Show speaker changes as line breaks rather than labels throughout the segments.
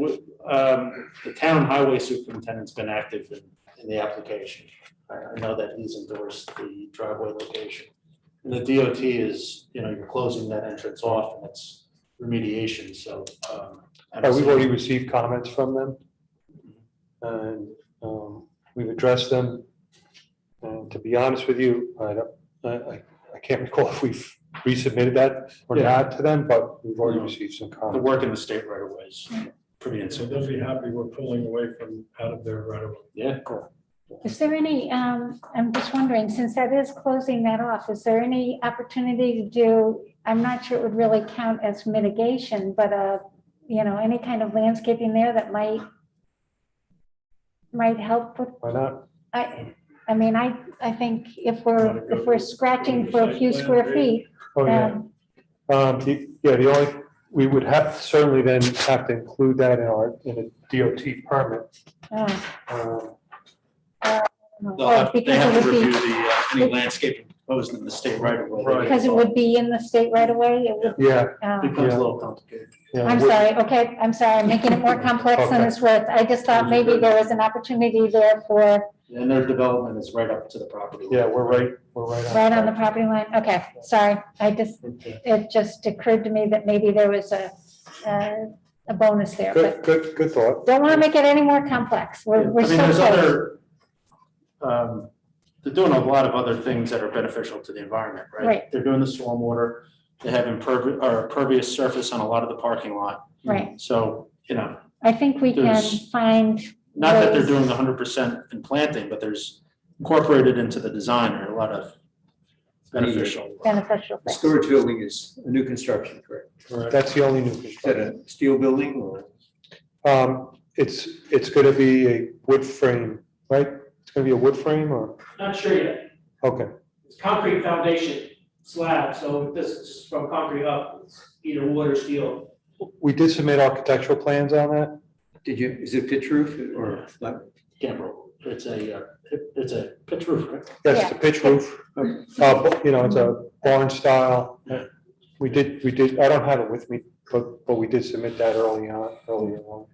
w- um, the town highway superintendent's been active in, in the application. I, I know that he's endorsed the driveway location. And the DOT is, you know, you're closing that entrance off and it's remediation, so, um. I don't
Uh, We've
see-
already received comments from them. And um, we've addressed them. And to be honest with you, I don't, I, I- I can't recall if we've resubmitted that or
Yeah.
not to them, but we've already
No.
received some
The
comments.
work in the state right away is pretty
So
intensive.
they'll be happy we're pulling away from out of their right of way.
Yeah.
Is there any, um, I'm just wondering, since that is closing that off, is there any opportunity to do, I'm not sure it would really count as mitigation, but, uh, you know, any kind of landscaping there that might, might help with,
Why not?
I, I mean, I, I think if
Wanna
we're,
go
if we're
to- go
scratching
to
for a
site
few
plan,
square
Dave?
feet,
Oh, yeah.
um,
Um, the- yeah, the only, we would have, certainly then have to include that in our, in a DOT permit.
uh,
Um,
no,
They'll have, they
because
have
it
to
would
review
be,
the, uh, any landscaping proposed in the state right away.
Right.
because it would be in the state right away, it would,
Yeah,
um.
Becomes a little complicated.
yeah.
I'm
we-
sorry, okay, I'm sorry, I'm making it more complex than
Okay.
it's worth. I just thought maybe there was an opportunity there for,
And their development is right up to the property.
Yeah, we're right, we're right on.
right on the
track.
property line. Okay, sorry, I just,
Okay.
it just occurred to me that maybe there was a, a- a bonus there, but
Good, good, good thought.
don't want to make it any more complex.
Yeah, I
We're, we're
mean,
so
there's
close.
other, um, they're doing a lot of other things that are beneficial to the environment, right?
Right.
They're doing the stormwater, they have impervious, or pervious surface on a lot of the parking lot.
Right,
So, you know,
I think we can
There's-
find,
not that they're doing
Those-
hundred percent in planting, but there's incorporated into the design are a lot of beneficial.
beneficial
The
things.
storage building is a new construction, correct?
Correct.
That's the only new
Is that
construction.
a steel building or?
Um, it's, it's gonna be a wood frame, right? It's gonna be a wood frame or,
Not sure yet.
okay,
It's concrete foundation slab, so this is from concrete up, it's either wood or steel.
we did submit architectural plans on that.
Did you, is it pitch roof or? flat?
Gambrel, it's a, uh, it- it's a pitch roof,
Uh-huh.
right?
Yes, the pitch roof, uh, bu- you know, it's a barn style. We did, we did, I don't have it with me, but, but we did submit that early on, earlier on.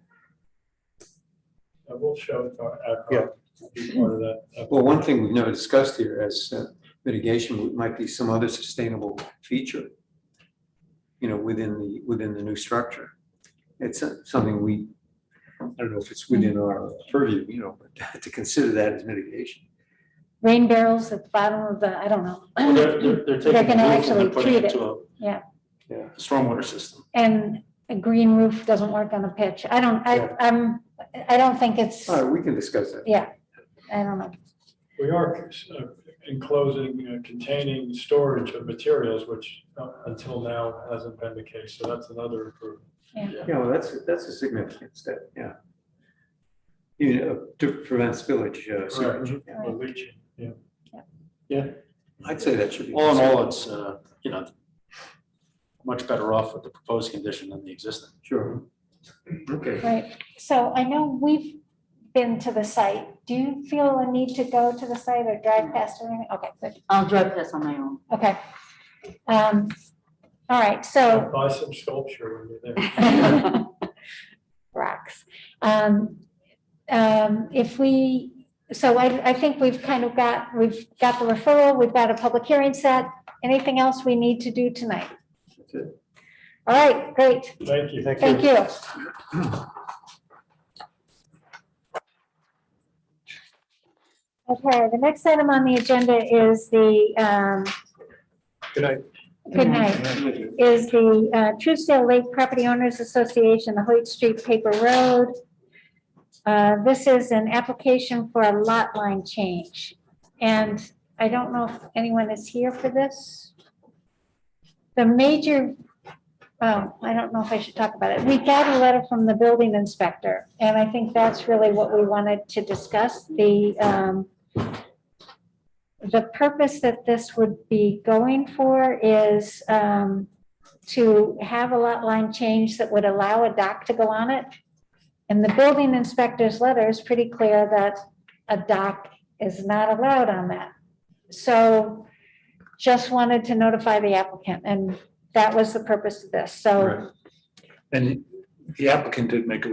I will Uh, show it to our- our-
Yeah.
be part of that. uh,
Well, one thing we've never discussed here as uh, mitigation might be some other sustainable feature. You know, within the, within the new structure. It's uh, something we, I don't know if it's within our purview, you know, but to consider that as mitigation.
Rain barrels at the bottom of the, I don't
Well,
know.
They're, they're- they're
They're
taking the roof
gonna
and
actually
they're putting it
treat it.
to a.
Yeah.
Yeah.
Stormwater system.
And a green roof doesn't work on a pitch. I don't, I,
Yeah.
I'm, I don't think it's,
All right, we can discuss that.
I don't know.
We are uh, enclosing, uh, containing storage of materials, which uh, until now hasn't been the case. So that's another improvement.
Yeah, well, that's, that's a significant step, yeah. You know, to prevent spillage, uh, sewage. yeah.
The leaching, yeah.
I'd say that should be.
All in all, it's, uh, you know, much better off with the proposed condition than the existing.
Sure. Okay.
Right, so I know we've been to the site. Do you feel a need to go to the site or drive past or anything? Okay, good,
I'll drive this on my own.
okay. Um, all right, so
Buy some sculpture when you're there.
rocks. Um, um, if we, so I, I think we've kind of got, we've got the referral, we've got a public hearing set. Anything else we need to do tonight?
That's it.
All right, great,
Thank you.
thank you. Okay, the next item on the agenda is the, um,
Good night.
good night, is the uh, Truesdale Lake Property Owners Association, the Hoyt Street Paper Road. Uh, This is an application for a lot line change, and I don't know if anyone is here for this. The major, oh, I don't know if I should talk about it. We got a letter from the building inspector, and I think that's really what we wanted to discuss, the, um, the purpose that this would be going for is um, to have a lot line change that would allow a dock to go on it. And the building inspector's letter is pretty clear that a dock is not allowed on that. So just wanted to notify the applicant, and that was the purpose of this. So
And the applicant did make a